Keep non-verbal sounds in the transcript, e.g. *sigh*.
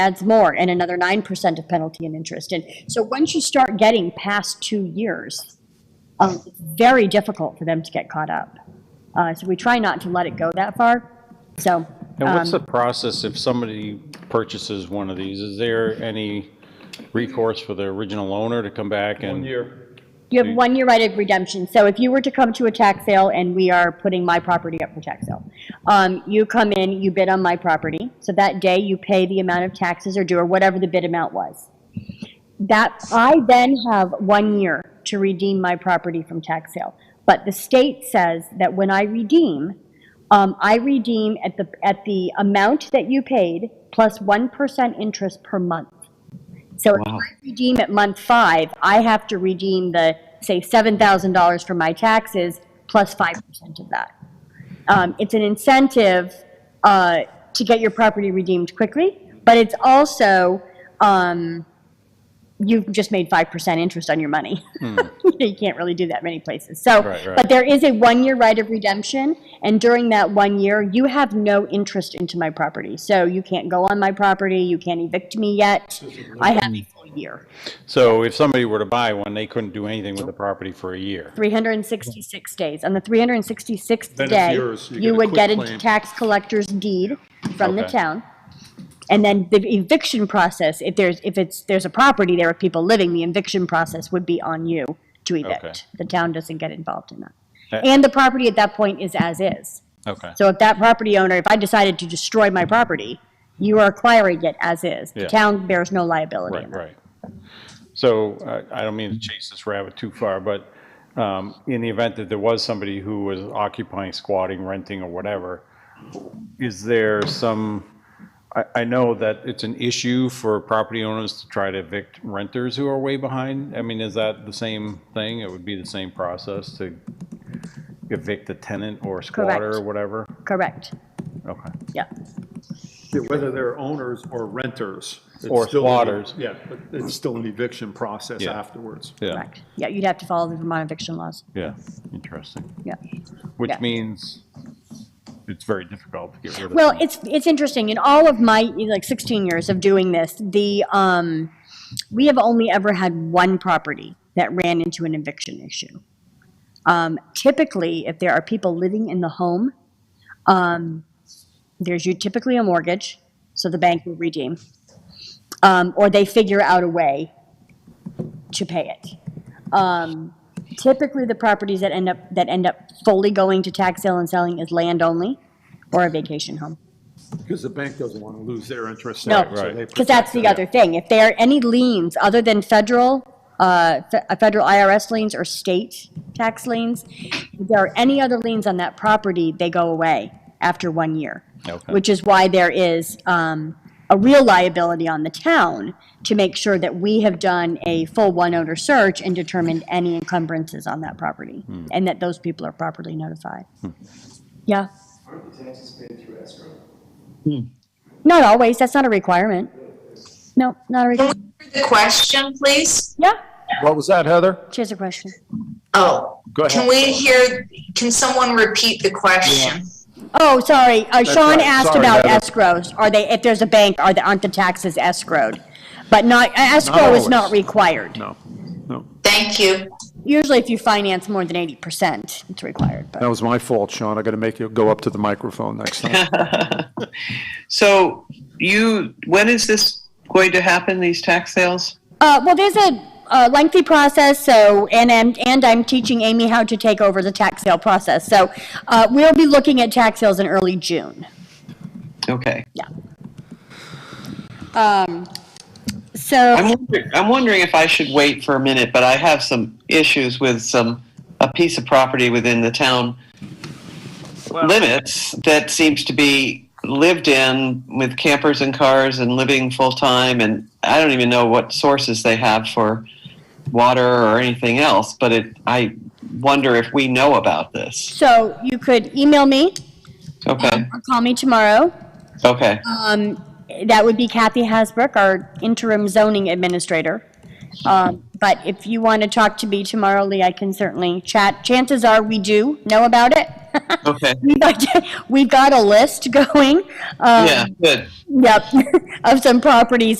adds more and another 9% of penalty and interest. And so once you start getting past two years, um, it's very difficult for them to get caught up. Uh, So we try not to let it go that far. So um, And what's the process if somebody purchases one of these? Is there any recourse for the original owner to come back and? year. you have one year right of redemption. So if you were to come to a tax sale and we are putting my property up for tax sale, um, you come in, you bid on my property. So that day you pay the amount of taxes or due or whatever the bid amount was. That, I then have one year to redeem my property from tax sale. But the state says that when I redeem, um, I redeem at the, at the amount that you paid plus 1% interest per month. So if I redeem at month five, I have to redeem the, say, $7,000 for my taxes plus 5% of that. Um, It's an incentive uh, to get your property redeemed quickly, but it's also, um, you've just made 5% interest on your money. *laughs* You can't really do that many places. So, Hmm. Right, right. but there is a one-year right of redemption, and during that one year, you have no interest into my property. So you can't go on my property, you can't evict me yet. I have a full year. So if somebody were to buy one, they couldn't do anything with the property for a year. 366 days. On the 366th Then it's day, yours. You you get a would quit get a claim. tax collector's deed from the Okay. town. And then the eviction process, if there's, if it's, there's a property there with people living, the eviction process would be on you to evict. The town doesn't get involved in that. Eh. Uh, And the property at that point is as is. Okay. So if that property owner, if I decided to destroy my property, you are acquiring it as is. The Yeah. town bears no liability Right, in that. right. So uh, I don't mean to chase this rabbit too far, but um, in the event that there was somebody who was occupying, squatting, renting, or whatever, is there some, I, I know that it's an issue for property owners to try to evict renters who are way behind. I mean, is that the same thing? It would be the same process to evict a tenant or squatter or Correct. whatever? Correct, Okay. yeah. Whether they're owners or renters. it's Or still an- squatters. Yeah, but it's still an eviction process Yeah. afterwards. Yeah, Correct. Yeah, you'd have to follow the Vermont eviction laws. yeah, interesting. Yeah. Which Yeah. means it's very difficult to get rid of. Well, it's, it's interesting. In all of my, you know, like 16 years of doing this, the, um, we have only ever had one property that ran into an eviction issue. Um, typically, if there are people living in the home, um, there's you typically a mortgage, so the bank will redeem. Um, or they figure out a way to pay it. Um, typically, the properties that end up, that end up fully going to tax sale and selling is land only or a vacation home. Because the bank doesn't want to lose their interest. No, so they because that's protect the that. other thing. If there are any liens other than federal, uh, fe- uh, federal IRS liens or state tax liens, if there are any other liens on that property, they go away after one year. Okay. Which is why there is um, a real liability on the town to make sure that we have done a full one-owner search and determined any encumbrances on that property, Hmm. and that those people are properly notified. Yeah, Aren't the taxes paid through escrow? not always, that's not a requirement. No, not a requirement. The question, please? Yeah, What was that, Heather? she has a question. Oh, Go ahead. can we hear, can someone repeat the question? Oh, sorry, uh, Sean right. asked Sorry, about Heather. escrows, are they, if there's a bank, are the, aren't the taxes escrowed? But not, escrow is not required. No, no. Thank you. Usually if you finance more than eighty percent, it's required, That but, was my fault, Sean. I got to make you go up to the microphone next time. So you, when is this going to happen, these tax sales? uh, well, there's a, uh lengthy process, so, and, I'm and I'm teaching Amy how to take over the tax sale process, so, uh, we'll be looking at tax sales in early June. Okay. Yeah. Um, so. I'm wondering, I'm wondering if I should wait for a minute, but I have some issues with some, a piece of property within the town limits that seems to be lived in with campers and cars and living full time. And I don't even know what sources they have for water or anything else, but it, I wonder if we know about this. So you could email me Okay. or call me tomorrow. Okay. Um, That would be Kathy Hasbrook, our interim zoning administrator. Um, But if you want to talk to me tomorrow, Lee, I can certainly chat. Chances are we do know about it. *laughs* Okay. We've got, *laughs* we got a list *laughs* going. um, Yeah, good. Yep, *laughs* of some properties